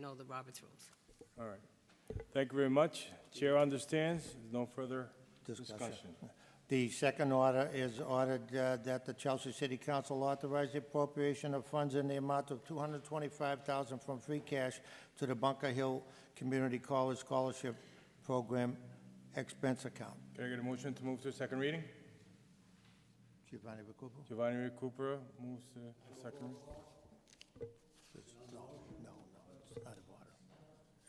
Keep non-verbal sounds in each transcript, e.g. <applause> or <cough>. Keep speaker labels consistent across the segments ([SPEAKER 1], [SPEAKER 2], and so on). [SPEAKER 1] know the Robert's rules.
[SPEAKER 2] All right. Thank you very much. Chair understands. There's no further discussion.
[SPEAKER 3] Discussion. The second order is ordered uh, that the Chelsea City Council authorize the appropriation of funds in the amount of $225,000 from free cash to the Bunker Hill Community College Scholarship Program expense account.
[SPEAKER 2] Can I get a motion to move to second reading?
[SPEAKER 3] Giovanni Recupero?
[SPEAKER 2] Giovanni Recupero moves to second. reading.
[SPEAKER 3] No, no, no, it's out of order,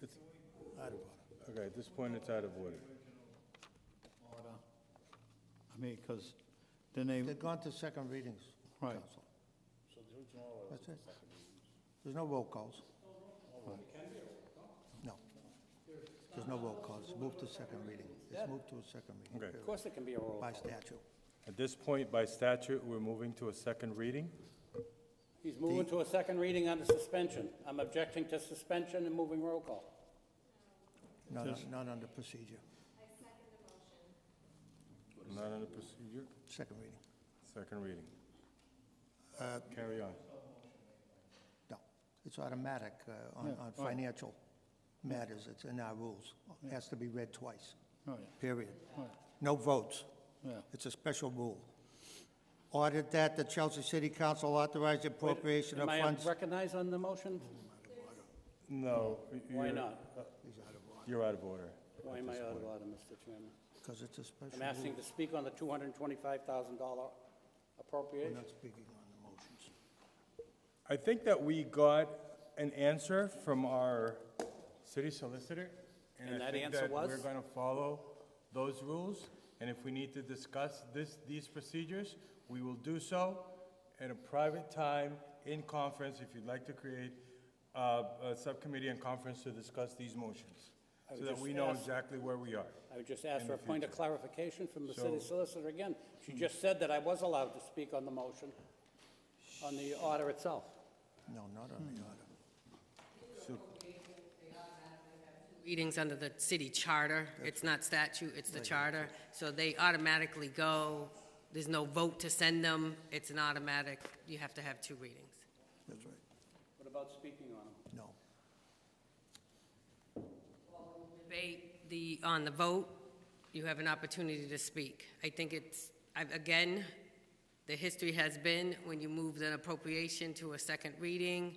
[SPEAKER 2] It's-
[SPEAKER 3] out of order.
[SPEAKER 2] Okay, at this point, it's out of order.
[SPEAKER 4] I mean, because then they,
[SPEAKER 3] They've gone to second readings,
[SPEAKER 4] Right.
[SPEAKER 3] Council. That's it. There's no roll calls. No. There's no roll calls. Move to second reading. It's moved to a second reading.
[SPEAKER 2] Okay.
[SPEAKER 5] Of course it can be a roll
[SPEAKER 3] By
[SPEAKER 5] call.
[SPEAKER 3] statute.
[SPEAKER 2] At this point, by statute, we're moving to a second reading.
[SPEAKER 5] He's moving to a second reading on the suspension. I'm objecting to suspension and moving roll call.
[SPEAKER 3] Not, on- not under procedure.
[SPEAKER 2] Not under procedure,
[SPEAKER 3] Second reading.
[SPEAKER 2] second reading.
[SPEAKER 5] Uh,
[SPEAKER 2] Carry on.
[SPEAKER 3] No. It's automatic uh, on, on financial matters. It's in our rules. It has to be read twice,
[SPEAKER 4] oh,
[SPEAKER 3] period.
[SPEAKER 4] Right.
[SPEAKER 3] No votes.
[SPEAKER 4] yeah,
[SPEAKER 3] It's a special rule. Ordered that the Chelsea City Council authorize the appropriation of
[SPEAKER 5] Am I
[SPEAKER 3] funds.
[SPEAKER 5] recognized on the motion?
[SPEAKER 2] No.
[SPEAKER 5] Why
[SPEAKER 2] you're-
[SPEAKER 5] not?
[SPEAKER 2] You're out of order.
[SPEAKER 5] Why am I out of order, Mr. Chairman?
[SPEAKER 3] Because it's a special
[SPEAKER 5] I'm
[SPEAKER 3] rule.
[SPEAKER 5] asking to speak on the $225,000
[SPEAKER 3] We're
[SPEAKER 5] appropriation.
[SPEAKER 3] not speaking on the motions.
[SPEAKER 2] I think that we got an answer from our city solicitor.
[SPEAKER 5] And
[SPEAKER 2] I
[SPEAKER 5] that
[SPEAKER 2] think
[SPEAKER 5] answer
[SPEAKER 2] We're
[SPEAKER 5] was?
[SPEAKER 2] gonna follow those rules, and if we need to discuss this, these procedures, we will do so at a private time in conference, if you'd like to create uh, a subcommittee and conference to discuss these motions,
[SPEAKER 5] I
[SPEAKER 2] so
[SPEAKER 5] would
[SPEAKER 2] that
[SPEAKER 5] just
[SPEAKER 2] we know
[SPEAKER 5] ask-
[SPEAKER 2] exactly where we are.
[SPEAKER 5] I would just ask
[SPEAKER 2] in
[SPEAKER 5] for a
[SPEAKER 2] the
[SPEAKER 5] point of
[SPEAKER 2] future.
[SPEAKER 5] clarification from the city
[SPEAKER 2] So- Hmm.
[SPEAKER 5] solicitor again. She just said that I was allowed to speak on the motion, on the order itself.
[SPEAKER 3] No, not on
[SPEAKER 5] Hmm.
[SPEAKER 3] the order.
[SPEAKER 2] So
[SPEAKER 1] Readings under the city charter, it's not statute, it's the charter, so they automatically go, there's no vote to send them, it's an automatic, you have to have two readings.
[SPEAKER 3] That's right.
[SPEAKER 5] What about speaking on them?
[SPEAKER 3] No.
[SPEAKER 1] Debate the, on the vote, you have an opportunity to speak. I think it's, I- again, the history has been, when you move an appropriation to a second reading,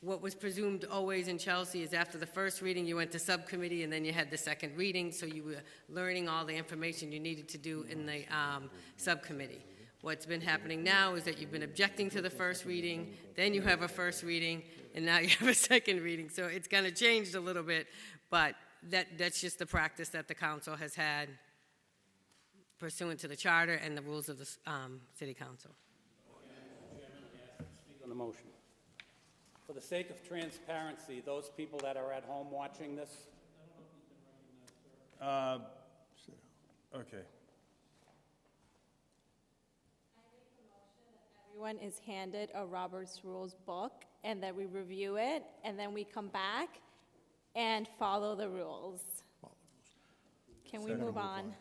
[SPEAKER 1] what was presumed always in Chelsea is after the first reading, you went to subcommittee, and then you had the second reading, so you were learning all the information you needed to do in the um, subcommittee. What's been happening now is that you've been objecting to the first reading, then you have a first reading, and now <laughs> you have a second reading. So it's kind of changed a little bit, but that, that's just the practice that the council has had pursuant to the charter and the rules of the um, city council.
[SPEAKER 5] Speak on the motion. For the sake of transparency, those people that are at home watching this,
[SPEAKER 2] Okay,
[SPEAKER 6] Everyone is handed a Robert's Rules book, and that we review it, and then we come back and follow the rules. Can we move on?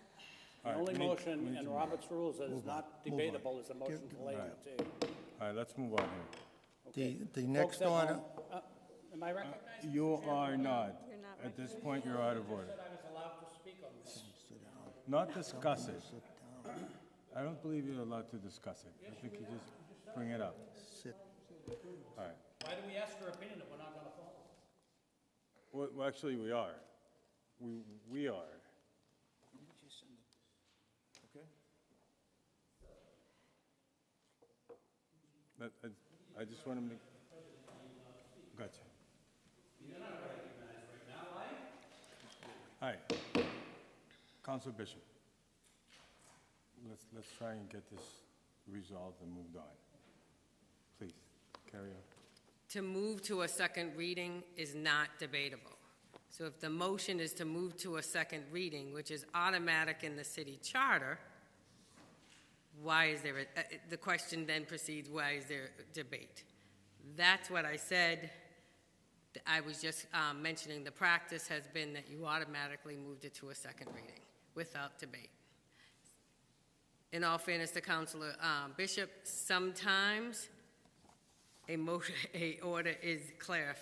[SPEAKER 5] the
[SPEAKER 2] we
[SPEAKER 5] only
[SPEAKER 2] need- we
[SPEAKER 5] motion
[SPEAKER 2] need
[SPEAKER 5] in
[SPEAKER 2] to
[SPEAKER 5] Robert's rules that is not
[SPEAKER 3] move on.
[SPEAKER 5] debatable is a motion to lay on
[SPEAKER 2] Alright.
[SPEAKER 5] the table.
[SPEAKER 2] all right, let's move on here.
[SPEAKER 3] The, the
[SPEAKER 5] Folks
[SPEAKER 3] next
[SPEAKER 5] at
[SPEAKER 3] order,
[SPEAKER 5] home, uh, Am I recognized?
[SPEAKER 2] You are not.
[SPEAKER 6] You're not
[SPEAKER 2] At this point, you're out of order.
[SPEAKER 5] I was allowed to speak on this.
[SPEAKER 2] Not discuss it. I don't believe you're allowed to discuss it. I think you just bring it up.
[SPEAKER 3] sit,
[SPEAKER 2] All right.
[SPEAKER 5] Why do we ask for opinion if we're not going to follow?
[SPEAKER 2] Well, well, actually, we are. We, we are. But I, I just want to make, gotcha. All right. Council Bishop. Let's, let's try and get this resolved and moved on. Please, carry on.
[SPEAKER 1] To move to a second reading is not debatable. So if the motion is to move to a second reading, which is automatic in the city charter, why is there, a- uh, the question then proceeds, why is there debate? That's what I said. I was just um, mentioning, the practice has been that you automatically moved it to a second reading without debate. In all fairness to Counselor um, <laughs> Bishop, sometimes a motion, a order is clarified.